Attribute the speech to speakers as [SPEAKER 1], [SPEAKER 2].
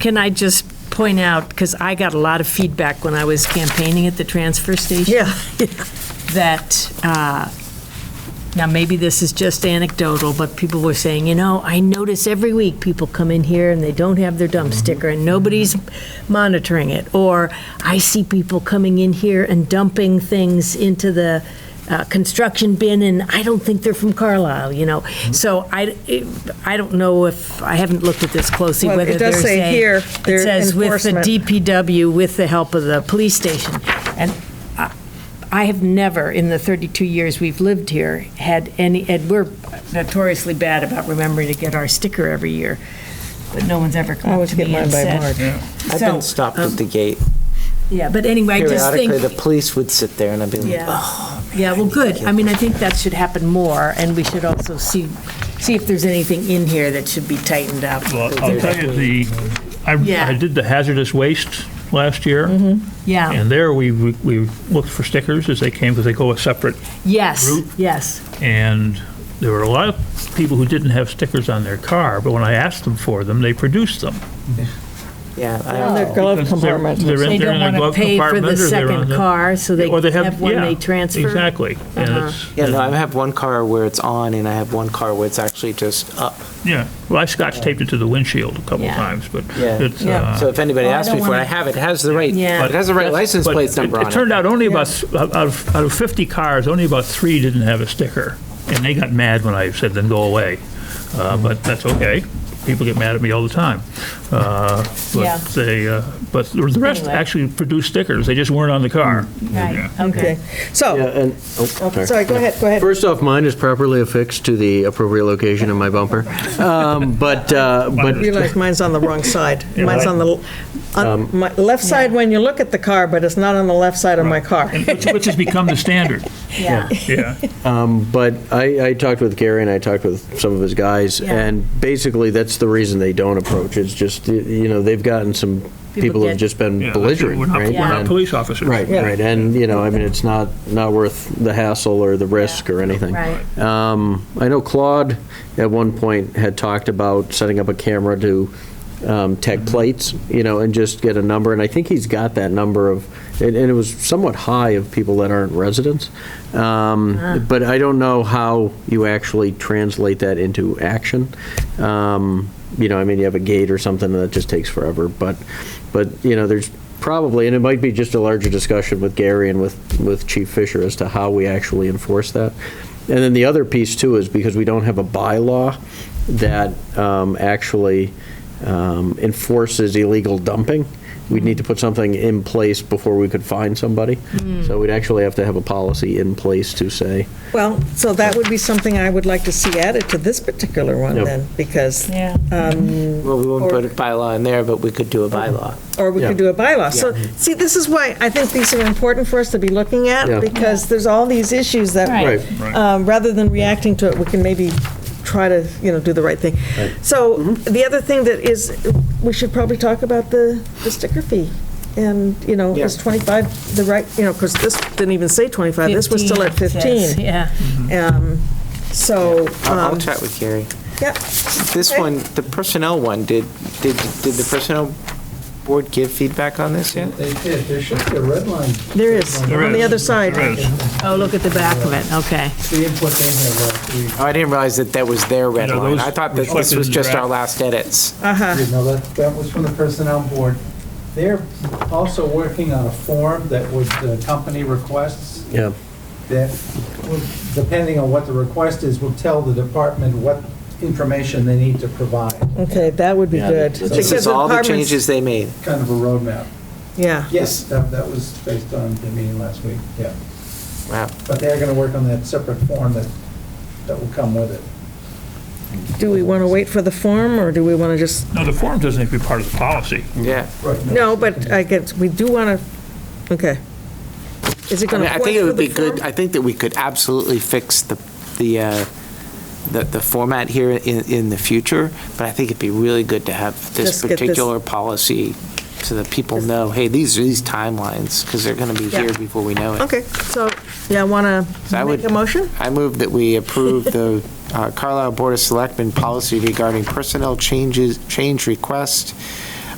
[SPEAKER 1] can I just point out, because I got a lot of feedback when I was campaigning at the transfer station,
[SPEAKER 2] Yeah.
[SPEAKER 1] that, uh, now maybe this is just anecdotal, but people were saying, you know, I notice every week people come in here and they don't have their
[SPEAKER 2] Mm-hmm.
[SPEAKER 1] dump sticker and nobody's monitoring it. Or I see people coming in here and dumping things into the uh, construction bin and I don't think they're from Carlisle, you know?
[SPEAKER 2] Mm-hmm.
[SPEAKER 1] So I, it- I don't know if, I haven't looked at this closely,
[SPEAKER 2] Well,
[SPEAKER 1] whether
[SPEAKER 2] it
[SPEAKER 1] they're
[SPEAKER 2] does say
[SPEAKER 1] saying.
[SPEAKER 2] here, their
[SPEAKER 1] It says with the
[SPEAKER 2] enforcement.
[SPEAKER 1] DPW, with the help of the police station. And I- I have never, in the 32 years we've lived here, had any, and we're notoriously bad about remembering to get our sticker every year, but no one's ever
[SPEAKER 2] I
[SPEAKER 1] come up
[SPEAKER 2] always
[SPEAKER 1] to
[SPEAKER 2] get
[SPEAKER 1] me
[SPEAKER 2] mine
[SPEAKER 1] and
[SPEAKER 2] by
[SPEAKER 1] said.
[SPEAKER 2] March.
[SPEAKER 3] I've
[SPEAKER 1] So,
[SPEAKER 3] been stopped at the gate.
[SPEAKER 1] Yeah, but anyway, I just think.
[SPEAKER 3] Periodically, the police would sit there and I'd be like,
[SPEAKER 1] Yeah.
[SPEAKER 3] oh.
[SPEAKER 1] Yeah, well, good. I mean, I think that should happen more, and we should also see, see if there's anything in here that should be tightened up.
[SPEAKER 4] Well, I'll tell you, the,
[SPEAKER 1] Yeah. Mm-hmm.
[SPEAKER 4] I, I did the hazardous waste last year,
[SPEAKER 1] Yeah,
[SPEAKER 4] and there we, we we looked for stickers as they came, because they go a separate,
[SPEAKER 1] yes,
[SPEAKER 4] Root.
[SPEAKER 1] yes.
[SPEAKER 4] and there were a lot of people who didn't have stickers on their car, but when I asked them for them, they produced them.
[SPEAKER 3] Yeah,
[SPEAKER 2] On their
[SPEAKER 3] I-
[SPEAKER 2] glove
[SPEAKER 4] Because they're-
[SPEAKER 2] compartment.
[SPEAKER 4] they're in-
[SPEAKER 1] They
[SPEAKER 4] they're
[SPEAKER 1] don't
[SPEAKER 4] in their
[SPEAKER 1] want to
[SPEAKER 4] glove
[SPEAKER 1] pay for the
[SPEAKER 4] compartment, or they're on
[SPEAKER 1] second
[SPEAKER 4] the-
[SPEAKER 1] car, so they
[SPEAKER 4] Or they have,
[SPEAKER 1] have one
[SPEAKER 4] yeah,
[SPEAKER 1] they transfer. Uh-huh.
[SPEAKER 4] Exactly, and it's.
[SPEAKER 3] yeah, no, I have one car where it's on and I have one car where it's actually just up.
[SPEAKER 4] Yeah, well, I scotch taped it to the windshield a couple
[SPEAKER 1] Yeah.
[SPEAKER 4] times, but
[SPEAKER 3] Yeah.
[SPEAKER 4] it's.
[SPEAKER 1] Yeah.
[SPEAKER 4] uh,
[SPEAKER 3] So if anybody
[SPEAKER 1] Well, I
[SPEAKER 3] asks
[SPEAKER 1] don't
[SPEAKER 3] me for it,
[SPEAKER 1] wanna-
[SPEAKER 3] I have it. It has the right,
[SPEAKER 1] Yeah.
[SPEAKER 3] it has the right license
[SPEAKER 4] but
[SPEAKER 3] plate number
[SPEAKER 4] it-
[SPEAKER 3] on
[SPEAKER 4] It
[SPEAKER 3] it.
[SPEAKER 4] turned out only about, th- out of, out of 50 cars, only about three didn't have a sticker. And they got mad when I said, then go away. Uh, But that's okay. People get mad at me all the time. Uh,
[SPEAKER 1] Yeah.
[SPEAKER 4] But they, uh, but the rest
[SPEAKER 1] Anyway.
[SPEAKER 4] actually produced stickers. They just weren't on the car.
[SPEAKER 1] Right, okay.
[SPEAKER 2] Okay, so,
[SPEAKER 5] and. oh,
[SPEAKER 2] sorry, go ahead, go ahead.
[SPEAKER 5] First off, mine is properly affixed to the appropriate location in my bumper. Um, But, uh, but,
[SPEAKER 2] Realize mine's on the wrong side.
[SPEAKER 4] Yeah,
[SPEAKER 2] Mine's
[SPEAKER 4] right.
[SPEAKER 2] on the, on my left side when you look at the car, but it's not on the left side of my car.
[SPEAKER 4] And Which which has become the standard,
[SPEAKER 1] Yeah,
[SPEAKER 4] yeah.
[SPEAKER 5] but I, I talked with Gary and I talked with some of his guys,
[SPEAKER 1] Yeah.
[SPEAKER 5] and basically, that's the reason they don't approach. It's just, you know, they've gotten some, people
[SPEAKER 1] get-
[SPEAKER 5] have just been
[SPEAKER 4] Yeah,
[SPEAKER 5] belligerent,
[SPEAKER 4] We're not,
[SPEAKER 5] right?
[SPEAKER 4] we're not
[SPEAKER 5] And-
[SPEAKER 4] police officers.
[SPEAKER 5] Right,
[SPEAKER 2] Yeah.
[SPEAKER 5] right, and, you know, I mean, it's not, not worth the hassle or the risk or anything.
[SPEAKER 1] right.
[SPEAKER 5] Um, I know Claude at one point had talked about setting up a camera to um, tech plates, you know, and just get a number, and I think he's got that number of, and, and it was somewhat high of people that aren't residents. Um, but I don't know how you actually translate that into action. Um, you know, I mean, you have a gate or something and that just takes forever, but, but, you know, there's probably, and it might be just a larger discussion with Gary and with, with Chief Fisher as to how we actually enforce that. And then the other piece too is because we don't have a bylaw that um, actually um, enforces illegal dumping, we'd need to put something in place before we could find somebody. So we'd actually have to have a policy in place to say,
[SPEAKER 2] Well, so that would be something I would like to see added to this particular one
[SPEAKER 5] Yep.
[SPEAKER 2] then, because, um,
[SPEAKER 1] Yeah.
[SPEAKER 3] Well, we wouldn't put a bylaw in there, but we could do a bylaw.
[SPEAKER 2] or we could
[SPEAKER 5] Yeah.
[SPEAKER 2] do a bylaw. So, see, this is why I think these are important for us to be looking
[SPEAKER 5] Yeah.
[SPEAKER 2] at, because there's all these issues that
[SPEAKER 1] Right.
[SPEAKER 5] right,
[SPEAKER 2] um, rather than reacting to it, we can maybe try to, you know, do the right thing. So the other thing that is, we should probably talk about the the sticker fee. And, you know, is
[SPEAKER 3] Yeah.
[SPEAKER 2] 25 the right, you know, because this didn't even say 25, this was still at 15.
[SPEAKER 1] Yeah.
[SPEAKER 2] Um, So,
[SPEAKER 3] I'll I'll
[SPEAKER 2] um,
[SPEAKER 3] chat with Gary.
[SPEAKER 2] yeah,
[SPEAKER 3] This
[SPEAKER 2] Okay.
[SPEAKER 3] one, the personnel one, did, did, did the personnel board give feedback on this yet?
[SPEAKER 6] They did, there should be a red line.
[SPEAKER 2] there is, on the other side.
[SPEAKER 4] There is.
[SPEAKER 1] Oh, look at the back of it, okay.
[SPEAKER 6] See what they have left, we,
[SPEAKER 3] Oh, I didn't realize that that was their red
[SPEAKER 4] No,
[SPEAKER 3] line.
[SPEAKER 4] those
[SPEAKER 3] I thought that this
[SPEAKER 4] reflected
[SPEAKER 3] was
[SPEAKER 4] in the
[SPEAKER 3] just our
[SPEAKER 4] draft.
[SPEAKER 3] last edits.
[SPEAKER 2] Uh-huh,
[SPEAKER 6] you know, that, that was from the personnel board. They're also working on a form that would, the company requests,
[SPEAKER 5] yeah.
[SPEAKER 6] that, would- depending on what the request is, will tell the department what information they need to provide,
[SPEAKER 2] okay, that would be
[SPEAKER 5] Yeah,
[SPEAKER 2] good.
[SPEAKER 5] this is
[SPEAKER 3] This
[SPEAKER 2] Because
[SPEAKER 3] is all the
[SPEAKER 2] apartments-
[SPEAKER 3] changes they made.
[SPEAKER 6] kind of a roadmap.
[SPEAKER 2] Yeah,
[SPEAKER 6] Yes, that, that was based on the meeting last week, yeah.
[SPEAKER 3] Wow.
[SPEAKER 6] But they're gonna work on that separate form that, that will come with it.
[SPEAKER 2] do we want to wait for the form, or do we want to just,
[SPEAKER 4] No, the form doesn't have to be part of the policy.
[SPEAKER 3] Yeah.
[SPEAKER 6] Right.
[SPEAKER 2] no, but I guess, we do want to, okay. Is it
[SPEAKER 3] I
[SPEAKER 2] going
[SPEAKER 3] mean,
[SPEAKER 2] to
[SPEAKER 3] I
[SPEAKER 2] force
[SPEAKER 3] think it
[SPEAKER 2] through
[SPEAKER 3] would
[SPEAKER 2] the
[SPEAKER 3] be
[SPEAKER 2] form?
[SPEAKER 3] good, I think that we could absolutely fix the, the, uh, the, the format here in, in the future, but I think it'd be really good to have this
[SPEAKER 2] Just get this-
[SPEAKER 3] particular policy so that people know, hey, these are these timelines, because they're going to be
[SPEAKER 2] Yeah.
[SPEAKER 3] here before we know it.
[SPEAKER 2] Okay, so, yeah, want
[SPEAKER 3] So I
[SPEAKER 2] to
[SPEAKER 3] would-
[SPEAKER 2] make a motion?
[SPEAKER 3] I move that we approve the uh, Carlisle Board of Selectmen policy regarding personnel changes, change request